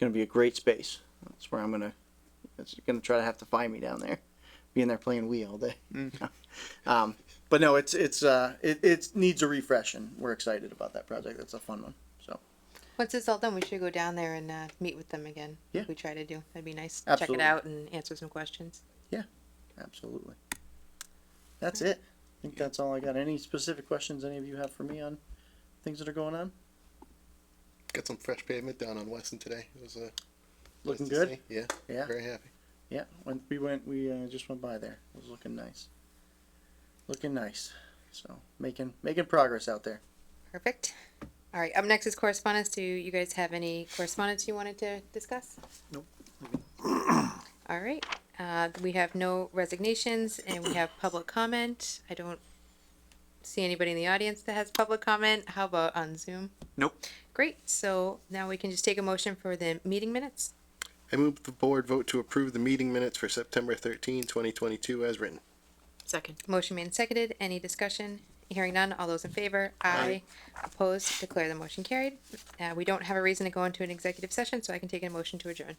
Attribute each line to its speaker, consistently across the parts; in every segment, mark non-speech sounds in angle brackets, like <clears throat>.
Speaker 1: gonna be a great space. That's where I'm gonna. That's gonna try to have to find me down there, being there playing Wii all day. <laughs> um, but no, it's it's uh, it it needs a refresh, and we're excited about that project. That's a fun one. So
Speaker 2: Once it's all done, we should go down there and uh, meet with them again.
Speaker 1: Yeah.
Speaker 2: We try to do. That'd be nice.
Speaker 1: Absolutely.
Speaker 2: Check it out and answer some questions.
Speaker 1: absolutely, that's it. I think that's all I got. Any specific questions any of you have for me on things that are going on?
Speaker 3: Got some fresh pavement down on Weston today. It was uh, nice
Speaker 1: Looking
Speaker 3: to
Speaker 1: good?
Speaker 3: see. Yeah,
Speaker 1: Yeah.
Speaker 3: very happy.
Speaker 1: Yeah, when we went, we uh, just went by there. It was looking nice. Looking nice. So making making progress out there.
Speaker 2: Perfect. All right. Up next is correspondence. Do you guys have any correspondence you wanted to discuss?
Speaker 1: Nope.
Speaker 2: <clears throat> All right. Uh, we have no resignations and we have public comment. I don't see anybody in the audience that has public comment. How about on Zoom?
Speaker 1: Nope.
Speaker 2: Great. So now we can just take a motion for the meeting minutes.
Speaker 3: I move the board vote to approve the meeting minutes for September 13, 2022 as written.
Speaker 4: Second.
Speaker 2: Motion made and seconded. Any discussion? Hearing none. All those in favor?
Speaker 3: Aye.
Speaker 2: Opposed? Declare the motion carried. Uh, we don't have a reason to go into an executive session, so I can take a motion to adjourn.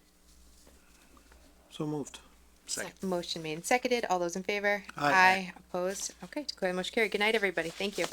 Speaker 5: So moved.
Speaker 4: Second.
Speaker 2: Motion made and seconded. All those in favor?
Speaker 5: Aye.
Speaker 2: Opposed? Okay, declare the motion carried. Good night, everybody. Thank you.